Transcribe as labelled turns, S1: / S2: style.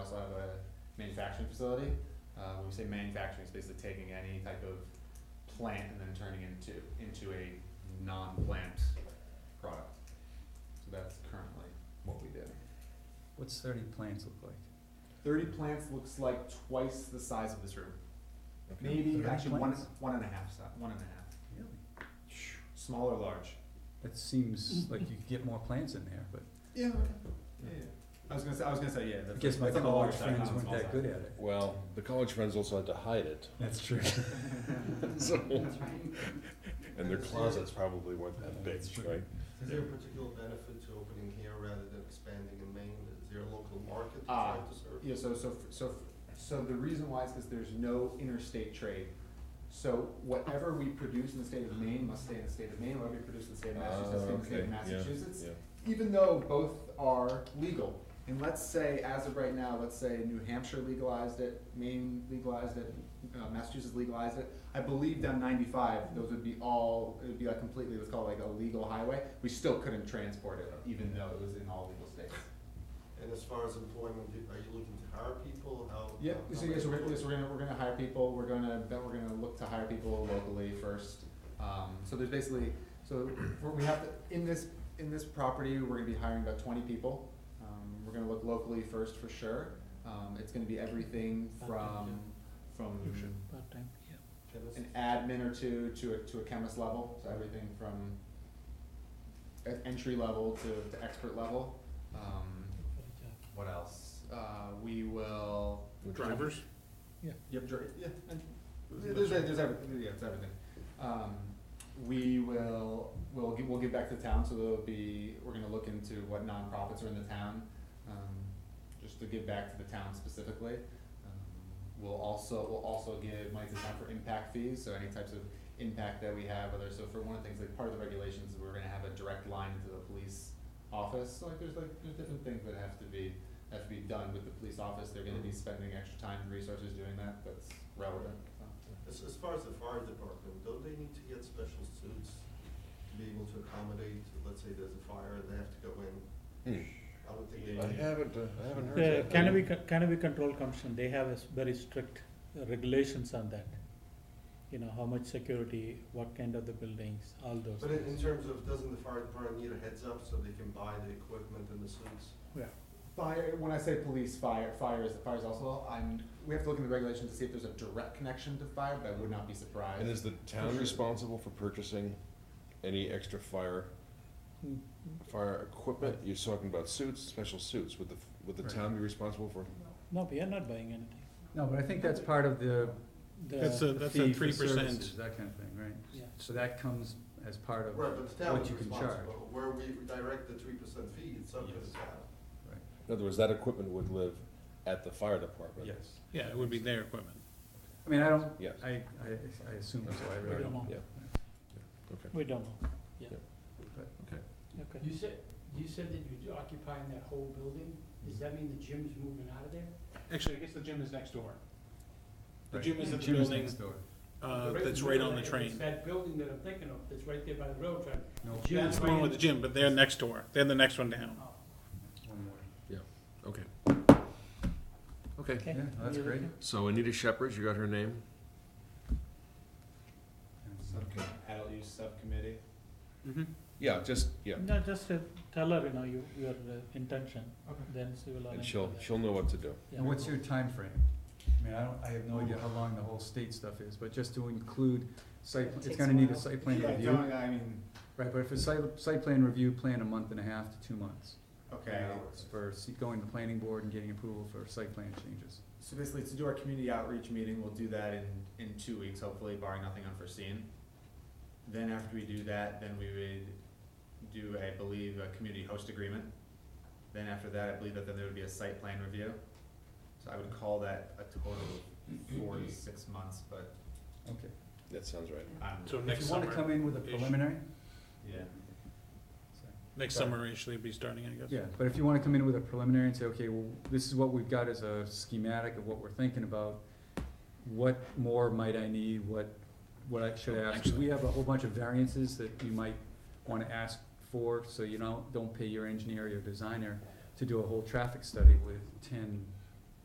S1: manufacturing facility. Uh, when we say manufacturing, it's basically taking any type of plant and then turning into, into a non-plant product. So that's currently what we do.
S2: What's thirty plants look like?
S1: Thirty plants looks like twice the size of this room.
S2: Okay.
S1: Maybe
S2: 30
S1: actually one,
S2: plants?
S1: one and a half, si- one and a half.
S2: Really?
S1: Small or large?
S2: That seems like you could get more plants in there, but
S1: Yeah, okay. Yeah, yeah. I was gonna say, I was gonna say, yeah.
S2: I
S1: that's-
S2: guess my
S1: that's on the large
S2: college
S1: side, not
S2: friends
S1: on the
S2: weren't
S1: small
S2: that
S1: side.
S2: good at it.
S3: Well, the college friends also had to hide it,
S2: That's true.
S3: so,
S4: That's right.
S3: and their closets probably weren't that big,
S2: That's true.
S3: right?
S5: Is there a particular benefit to opening here rather than expanding in Maine? Is there a local market to
S1: Ah,
S5: try to serve?
S1: Yeah, so, so, so, so the reason why is because there's no interstate trade. So whatever we produce in the state of Maine must stay in the state of Maine, whatever we produce in the state of Massachusetts, stays in the state of
S3: Ah, okay, yeah,
S1: Massachusetts.
S3: yeah.
S1: Even though both are legal, and let's say, as of right now, let's say New Hampshire legalized it, Maine legalized it, uh, Massachusetts legalized it. I believe down ninety-five, those would be all, it would be like completely, what's called like a legal highway. We still couldn't transport it, even though it was in all legal states.
S5: And as far as employment, do- are you looking to hire people? How?
S1: Yep,
S5: how-
S1: so
S5: how
S1: yeah, so we're,
S5: many-
S1: so we're gonna, we're gonna hire people, we're gonna, then we're gonna look to hire people locally first. Um, so there's basically, so we're- we have, to- in this, in this property, we're gonna be hiring about twenty people. Um, we're gonna look locally first for sure, um, it's gonna be everything from, from
S2: Part-time, yeah.
S5: Chemists?
S1: an admin or two to a, to a chemist level, so everything from e- entry level to, to expert level. Um, what else? Uh, we will.
S6: Drivers?
S1: Yep, dri- yeah, and there's, there's everything, yeah, it's everything. Um, we will, we'll give, we'll give back to the town, so there'll be, we're gonna look into what nonprofits are in the town, um, just to give back to the town specifically. Um, We'll also, we'll also give money to the town for impact fees, so any types of impact that we have, whether, so for one of the things, like part of the regulations, we're gonna have a direct line into the police office, so like, there's like, there's different things that have to be, have to be done with the police office, they're gonna be spending extra time and resources doing that, that's relevant, so.
S5: As, as far as the fire department, don't they need to get special suits to be able to accommodate, let's say there's a fire and they have to go in?
S3: Hmm.
S5: I would think they.
S3: I haven't, uh, I haven't heard
S6: The
S3: that.
S6: Cannabis, Con- Cannabis Control Commission, they have a s- very strict uh, regulations on that. You know, how much security, what kind of the buildings, all those
S5: But in, in
S6: things.
S5: terms of, doesn't the fire department need a heads up so they can buy the equipment and the suits?
S6: Yeah,
S1: Fire, when I say police, fire, fire is, fire is also, I'm, we have to look in the regulations to see if there's a direct connection to fire, but I would not be surprised.
S3: And is the
S1: For
S3: town
S1: sure.
S3: responsible for purchasing any extra fire,
S6: Mm,
S3: fire equipment? You're talking about suits, special suits, would the, would the
S2: Right.
S3: town be responsible for?
S6: no, we are not buying anything.
S2: No, but I think that's part of the
S6: The-
S7: That's a,
S2: the
S7: that's
S2: fee
S7: a
S2: for
S7: three percent.
S2: services, That kind of thing, right?
S6: Yeah.
S2: So that comes as part of
S5: Right, but the town
S2: what
S5: is
S2: you can charge.
S5: responsible, where we direct the three percent fee, it's up to the town.
S3: In other words, that equipment would live at the fire department.
S2: Yes.
S7: Yeah, it would be their equipment.
S2: I mean, I don't,
S3: Yes.
S2: I, I, I assume so, I
S6: We
S2: really
S6: don't know,
S3: Yeah. Okay.
S6: we don't know, okay.
S4: You said, you said that you're occupying that whole building? Does that mean the gym's moving out of there?
S7: Actually, I guess the gym is next door. The
S2: Right.
S7: gym is in the
S2: Gym is
S7: building,
S2: next door.
S7: uh, that's right on the
S4: It's
S7: train.
S4: that building that I'm thinking of, that's right there by the railroad track.
S2: No,
S4: The gym's
S7: That's the one
S4: right
S7: with the gym, but they're next door. They're the next one down.
S4: in-
S2: one more.
S3: Okay. Okay,
S6: Okay.
S2: Yeah, that's
S6: You're
S2: great.
S6: okay?
S3: so Anita Shepherd, you got her name?
S1: Subcom- Adult use subcommittee.
S7: Mm-hmm.
S3: Yeah, just, yeah,
S6: No, just uh, tell her, you know, you, your uh, intention,
S1: Okay.
S6: then she will.
S3: and
S6: arrange
S3: she'll,
S6: for that.
S3: she'll know what to do.
S6: Yeah.
S2: And what's your timeframe? I mean, I don't, I have no idea how long the whole state stuff is, but just to include site,
S8: It
S2: pl- it's
S8: takes
S2: gonna
S8: a
S2: need a
S8: while.
S2: site plan
S1: Yeah,
S2: review.
S1: don't- I mean,
S2: Right, but if it's site, site plan review, plan a month and a half to two months.
S1: okay,
S2: It's For se- going to planning board and getting approval for site plan changes.
S1: so basically to do our community outreach meeting, we'll do that in, in two weeks, hopefully barring nothing unforeseen. Then after we do that, then we would do, I believe, a community host agreement. Then after that, I believe that then there would be a site plan review. So I would call that a total of four to six months, but
S2: Okay.
S3: That sounds right.
S1: I'm,
S7: So
S2: If
S7: next
S2: you wanna
S7: summer,
S2: come in with a
S7: Ish.
S2: preliminary,
S1: yeah.
S2: sorry.
S7: next summer actually be starting, I guess.
S2: Yeah, but if you wanna come in with a preliminary and say, okay, well, this is what we've got as a schematic of what we're thinking about, what more might I need, what, what I should ask? 'Cause We have a whole bunch of variances that you might wanna ask for, so you don't, don't pay your engineer or your designer to do a whole traffic study with ten